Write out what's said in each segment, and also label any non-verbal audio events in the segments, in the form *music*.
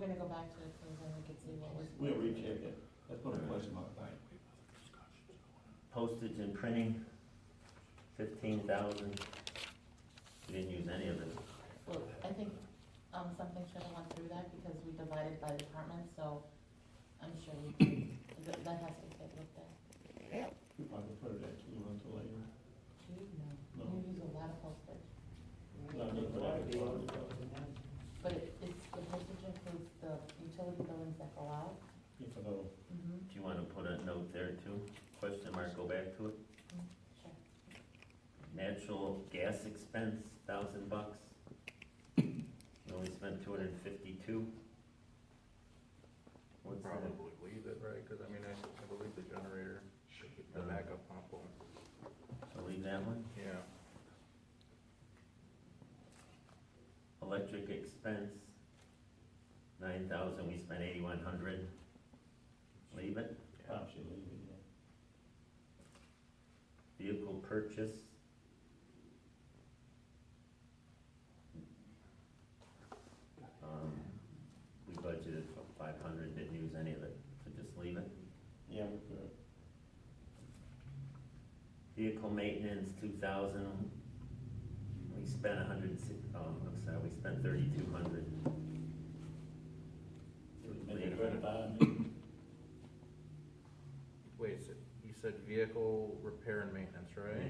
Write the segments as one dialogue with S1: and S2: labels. S1: gonna go back to the things and we could see what was.
S2: We'll recheck it. That's not a question mark.
S3: Postage and printing, fifteen thousand. We didn't use any of it.
S1: Well, I think, um, something should have went through that because we divided by department, so I'm sure we, can- that, that has to get looked at.
S2: We probably put it at two months or later.
S1: Gee, no,
S2: No.
S1: you use a lot of postage,
S2: Not just for that department.
S1: but it, it's, the postage includes the utility billings that go out.
S2: If I know.
S1: Mm-hmm.
S3: Do you wanna put a note there too? Question mark, go back to it.
S1: Sure.
S3: Natural gas expense, thousand bucks. We only spent two hundred and fifty-two.
S4: We'll
S3: What's that?
S4: probably leave it, right, because I mean, I I believe the generator, the
S3: Uh,
S4: backup pump will,
S3: So leave that one.
S4: yeah.
S3: Electric expense, nine thousand, we spent eighty-one hundred. Leave it.
S4: yeah.
S2: Probably should leave it, yeah.
S3: Vehicle purchase. Um, We budgeted for five hundred, didn't use any of it, so just leave it.
S2: Yeah, we could.
S3: Vehicle maintenance, two thousand. We spent a hundred, and si- um, I'm sorry, we spent thirty-two hundred.
S2: Maybe twenty-five, maybe.
S4: Wait, so you said vehicle repair and maintenance, right?
S3: And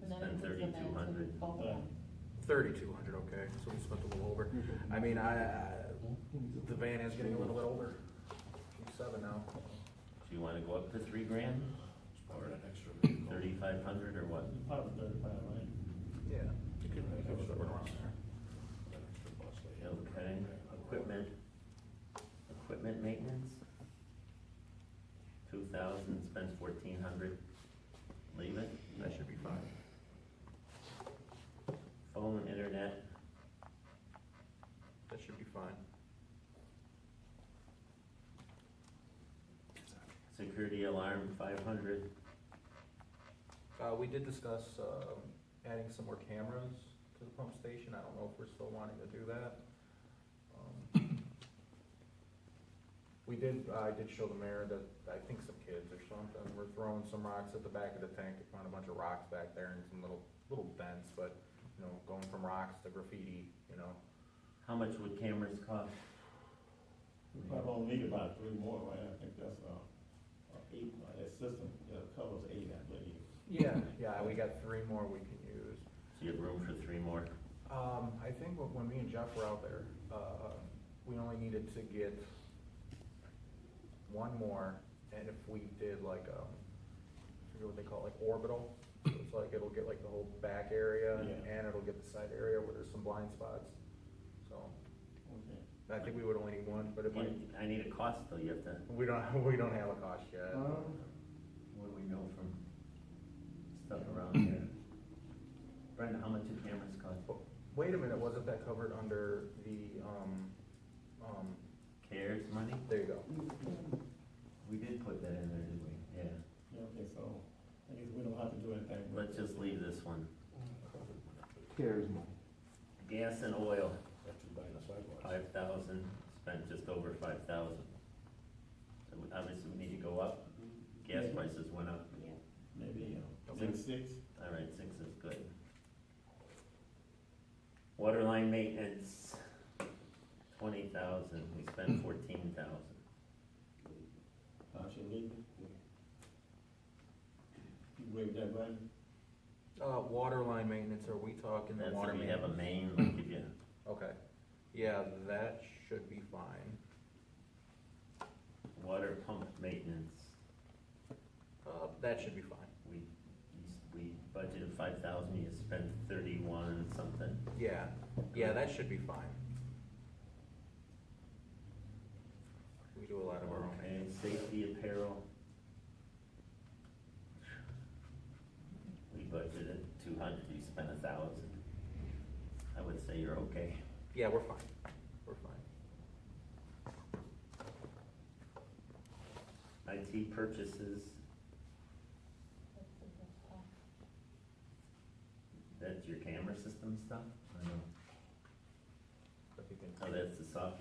S3: we
S1: And then
S3: spent
S1: it includes the vans
S3: thirty-two
S1: and
S3: hundred.
S1: both of them.
S4: Thirty-two hundred, okay, so we spent a little over. I mean, I, I- the van is getting a little bit older. She's Seven now.
S3: Do you wanna go up to three grand? Or an extra Thirty-five hundred or what?
S2: Probably thirty-five, right?
S4: Yeah. You could, you could put it around there.
S3: Okay, equipment, equipment maintenance? Two thousand, spent fourteen hundred, leave it.
S4: That should be fine.
S3: Phone, internet,
S4: That should be fine.
S3: security alarm, five hundred,
S4: Uh, we did discuss, um, adding some more cameras to the pump station, I don't know if we're still wanting to do that. Um, We did, I did show the mayor that, I think some kids or something, were throwing some rocks at the back of the tank, they found a bunch of rocks back there and some little, little dents, but, you know, going from rocks to graffiti, you know,
S3: how much would cameras cost?
S2: We probably only need about three more, right? I think that's, uh, uh, eight, uh, that system, uh, covers eight, I believe.
S4: Yeah, yeah, we got three more we can use.
S3: So you have room for three more,
S4: Um, I think when- when me and Jeff were out there, uh, we only needed to get one more, and if we did like, um, I forget what they call it, like orbital, so it's like, it'll get like the whole back area,
S2: Yeah.
S4: and it'll get the side area where there's some blind spots, so,
S2: Okay.
S4: I think we would only need one, but if we,
S3: You- I need a cost though, you have to,
S4: we don't, *laughs* we don't have a cost yet.
S2: Uh-huh.
S3: what do we know from stuff
S4: *clears throat*
S3: around here? Brenda, how much do cameras cost?
S4: Wait a minute, wasn't that covered under the, um, um,
S3: Cares money?
S4: there you go,
S3: We did put that in there, didn't we? Yeah.
S2: Yeah, okay, so, I guess we don't have to do anything.
S3: Let's just leave this one.
S5: Cares money.
S3: Gas and oil, five thousand, spent just over five thousand. So we- obviously, we need to go up. Gas prices went up.
S2: Maybe, uh,
S3: Okay.
S2: six, six,
S3: All right, six is good. Water line maintenance, twenty thousand, we spent fourteen thousand.
S2: I should leave it. You break that down?
S4: uh, water line maintenance, are we talking the
S3: That's
S4: water
S3: if you have
S4: maintenance?
S3: a main, like if you,
S4: Okay, yeah, that should be fine.
S3: water pump maintenance,
S4: Uh, that should be fine.
S3: we, we budgeted five thousand, you spent thirty-one something.
S4: Yeah, yeah, that should be fine. We do a lot of our own.
S3: Okay, safety apparel. We budgeted two hundred, you spent a thousand. I would say you're okay.
S4: Yeah, we're fine, we're fine.
S3: IT purchases,
S1: That's the best part.
S3: that's your camera system stuff? I know.
S4: If you can-
S3: Oh, that's the software